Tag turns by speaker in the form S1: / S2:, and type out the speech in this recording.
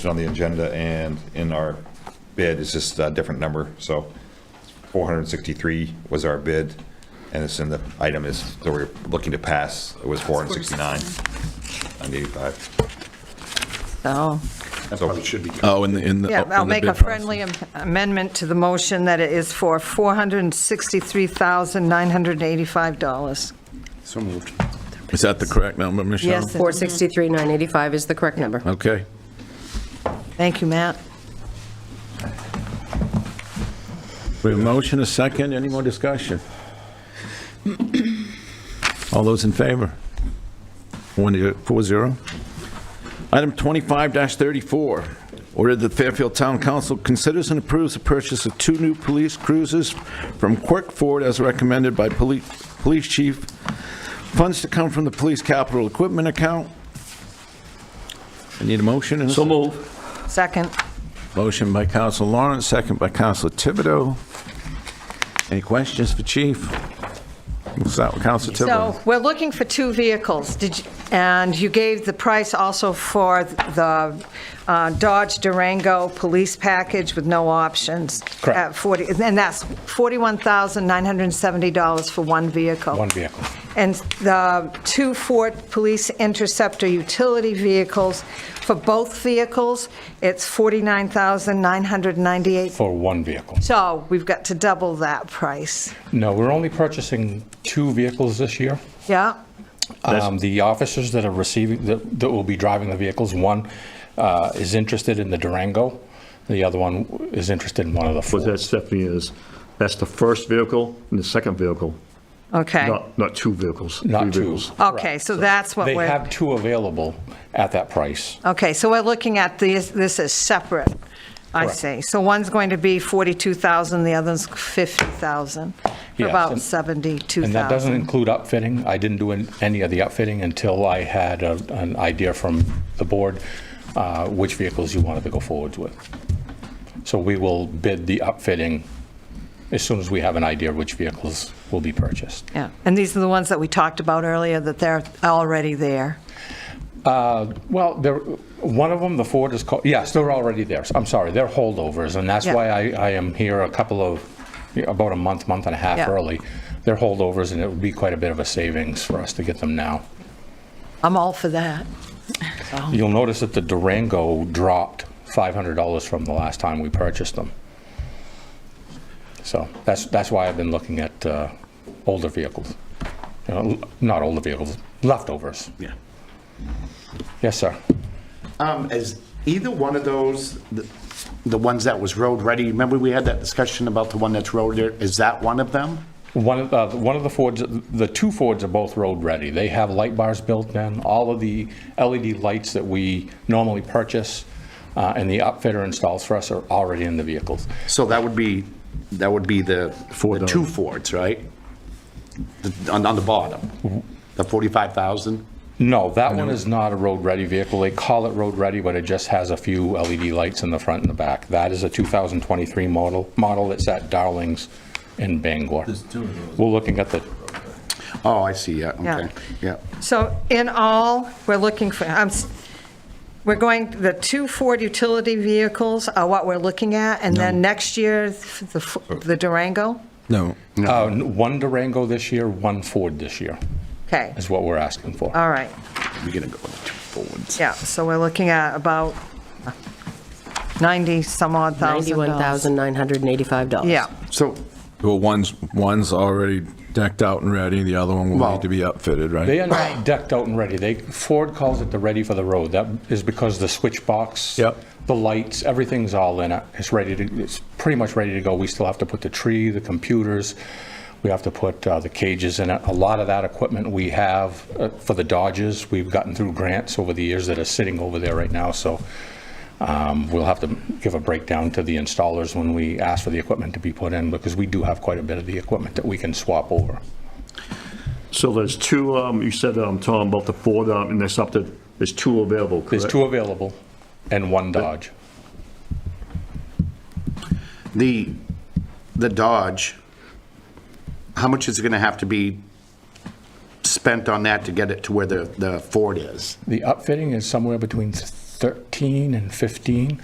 S1: on the agenda and in our bid, it's just a different number, so 463 was our bid, and it's in the item is, that we're looking to pass, it was 469 on 85.
S2: So,
S1: That probably should be.
S3: Oh, in the, in the.
S2: yeah,
S3: oh, in
S2: I'll
S3: the
S2: make a
S3: bid process.
S2: friendly am- amendment to the motion that it is for $463,985.
S4: So moved.
S3: Is that the correct number, Michelle?
S2: Yes,
S5: 463,985 is the correct number.
S3: Okay.
S2: thank you, Matt.
S3: We have a motion, a second, any more discussion? All those in favor? One, zero- four, zero. Item 25-34, order that Fairfield Town Council considers and approves the purchase of two new police cruisers from Quirk Ford as recommended by Poli- Police Chief. Funds to come from the Police Capital Equipment Account. I need a motion and a
S4: So
S3: second.
S4: moved.
S2: Second,
S3: Motion by Counsel Lawrence, second by Counsel Thibodeau. Any questions for Chief? We'll start with Counsel
S2: so
S3: Thibodeau.
S2: we're looking for two vehicles, Did you- and you gave the price also for the uh, Dodge Durango Police Package with no options.
S4: Correct.
S2: at 40 And that's $41,970 for one vehicle.
S4: One vehicle.
S2: and the two Ford Police Interceptor utility vehicles. For both vehicles, it's $49,998.
S4: For one vehicle.
S2: So we've got to double that price.
S4: No, we're only purchasing two vehicles this year.
S2: Yeah?
S4: Um, The officers that are receiving, that that will be driving the vehicles, one uh, is interested in the Durango, the other one is interested in one of the
S6: What that
S4: Fords.
S6: Stephanie is, that's the first vehicle and the second vehicle,
S2: Okay.
S6: not, not two vehicles.
S4: Not
S6: three
S4: two.
S6: vehicles.
S2: Okay, so that's what
S4: They
S2: we're,
S4: have two available at that price.
S2: okay, so we're looking at this, this is separate. I
S4: Correct.
S2: see. So one's going to be 42,000, the other's 50,000, for
S4: Yes,
S2: about
S4: and-
S2: 72,000.
S4: And that doesn't include upfitting. I didn't do an- any of the upfitting until I had a- an idea from the board uh, which vehicles you wanted to go forwards with. So we will bid the upfitting as soon as we have an idea which vehicles will be purchased.
S2: Yeah, and these are the ones that we talked about earlier, that they're already there.
S4: Uh, Well, there, one of them, the Ford is called, yes, they're already there. I'm sorry, they're holdovers, and that's
S2: Yeah.
S4: why I, I am here a couple of, about a month, month and a half
S2: Yeah.
S4: early. They're holdovers, and it would be quite a bit of a savings for us to get them now.
S2: I'm all for that.
S4: You'll notice that the Durango dropped $500 from the last time we purchased them. So that's, that's why I've been looking at uh, older vehicles. You know, l- Not older vehicles, leftovers.
S7: Yeah.
S4: Yes, sir.
S7: Um, is either one of those, the- the ones that was road-ready, remember we had that discussion about the one that's road, there? Is that one of them?
S4: One of, the one of the Fords, the two Fords are both road-ready. They have light bars built in, all of the LED lights that we normally purchase uh, and the upfitter installs for us are already in the vehicles.
S7: So that would be, that would be the, the two Fords, right? The- On, on the bottom, the 45,000?
S4: No, that one is not a road-ready vehicle. They call it road-ready, but it just has a few LED lights in the front and the back. That is a 2023 model, model that's at Darlings in Bangor. We're looking at the,
S7: Oh, I see, yeah,
S2: Yeah.
S7: okay, yeah.
S2: So in all, we're looking for, I'm, s- we're going, the two Ford utility vehicles are what we're looking at, and then next year, the F- the Durango?
S3: No.
S4: uh, one Durango this year, one Ford this year,
S2: Okay,
S4: is what we're asking for.
S2: all right,
S7: We're gonna go with the two Fords.
S2: yeah, so we're looking at about 90 some odd thousand dollars.
S5: $91,985.
S2: Yeah,
S7: So,
S3: Well, one's, one's already decked out and ready, the other one will
S7: Well-
S3: need to be upfitted, right?
S4: They are not decked out and ready. They, Ford calls it the ready for the road. That is because the switch box.
S3: Yep.
S4: The lights, everything's all in it. It's ready to, it's pretty much ready to go. We still have to put the tree, the computers. We have to put uh, the cages in it. A lot of that equipment we have uh, for the Dodges, we've gotten through grants over the years that are sitting over there right now. So um, we'll have to give a breakdown to the installers when we ask for the equipment to be put in because we do have quite a bit of the equipment that we can swap over.
S6: So there's two, um, you said, um, Tom, about the Ford, um, and there's up to, there's two available,
S4: There's
S6: correct?
S4: two available and one Dodge.
S7: the, the Dodge, how much is it gonna have to be spent on that to get it to where the, the Ford is?
S4: The upfitting is somewhere between th- 13 and 15.